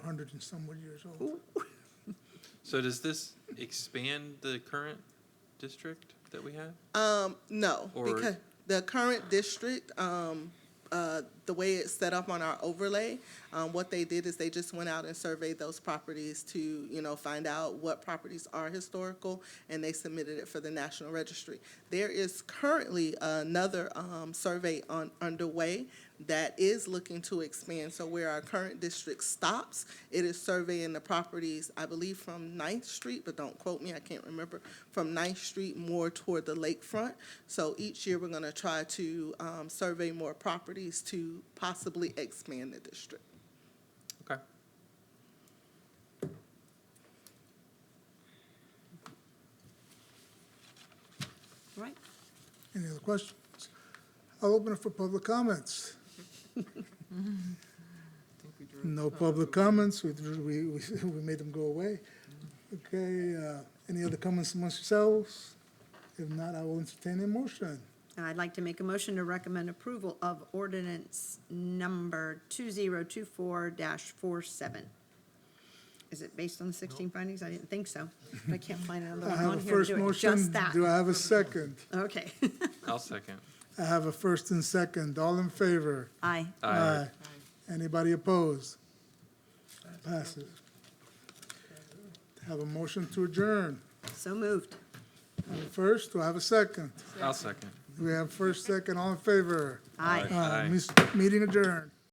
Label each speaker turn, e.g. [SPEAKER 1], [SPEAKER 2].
[SPEAKER 1] hundred and somewhat years old.
[SPEAKER 2] So does this expand the current district that we have?
[SPEAKER 3] Um, no,
[SPEAKER 2] Or-
[SPEAKER 3] because the current district, um, uh, the way it's set up on our overlay, um, what they did is they just went out and surveyed those properties to, you know, find out what properties are historical, and they submitted it for the National Registry. There is currently another, um, survey on, underway that is looking to expand, so where our current district stops, it is surveying the properties, I believe, from Ninth Street, but don't quote me, I can't remember, from Ninth Street more toward the lakefront. So each year, we're gonna try to, um, survey more properties to possibly expand the district.
[SPEAKER 2] Okay.
[SPEAKER 4] Right.
[SPEAKER 1] Any other questions? I'll open it for public comments. No public comments, we, drew- we, we we made them go away. Okay, uh, any other comments amongst yourselves? If not, I will entertain a motion.
[SPEAKER 4] I'd like to make a motion to recommend approval of ordinance number 2024-47. Is it based on the 16 findings? I didn't think so, but I can't find another
[SPEAKER 1] I
[SPEAKER 4] one
[SPEAKER 1] have
[SPEAKER 4] on
[SPEAKER 1] a
[SPEAKER 4] here to
[SPEAKER 1] first
[SPEAKER 4] do it.
[SPEAKER 1] motion.
[SPEAKER 4] Just that.
[SPEAKER 1] Do I have a second?
[SPEAKER 4] Okay.
[SPEAKER 2] I'll second.
[SPEAKER 1] I have a first and second. All in favor?
[SPEAKER 4] Aye.
[SPEAKER 2] Aye.
[SPEAKER 1] Anybody opposed? Passes. Have a motion to adjourn.
[SPEAKER 4] So moved.
[SPEAKER 1] I have a First, do I have a second?
[SPEAKER 2] I'll second.
[SPEAKER 1] We have first, second, all in favor?
[SPEAKER 4] Aye.
[SPEAKER 1] Uh, mis- Meeting adjourned.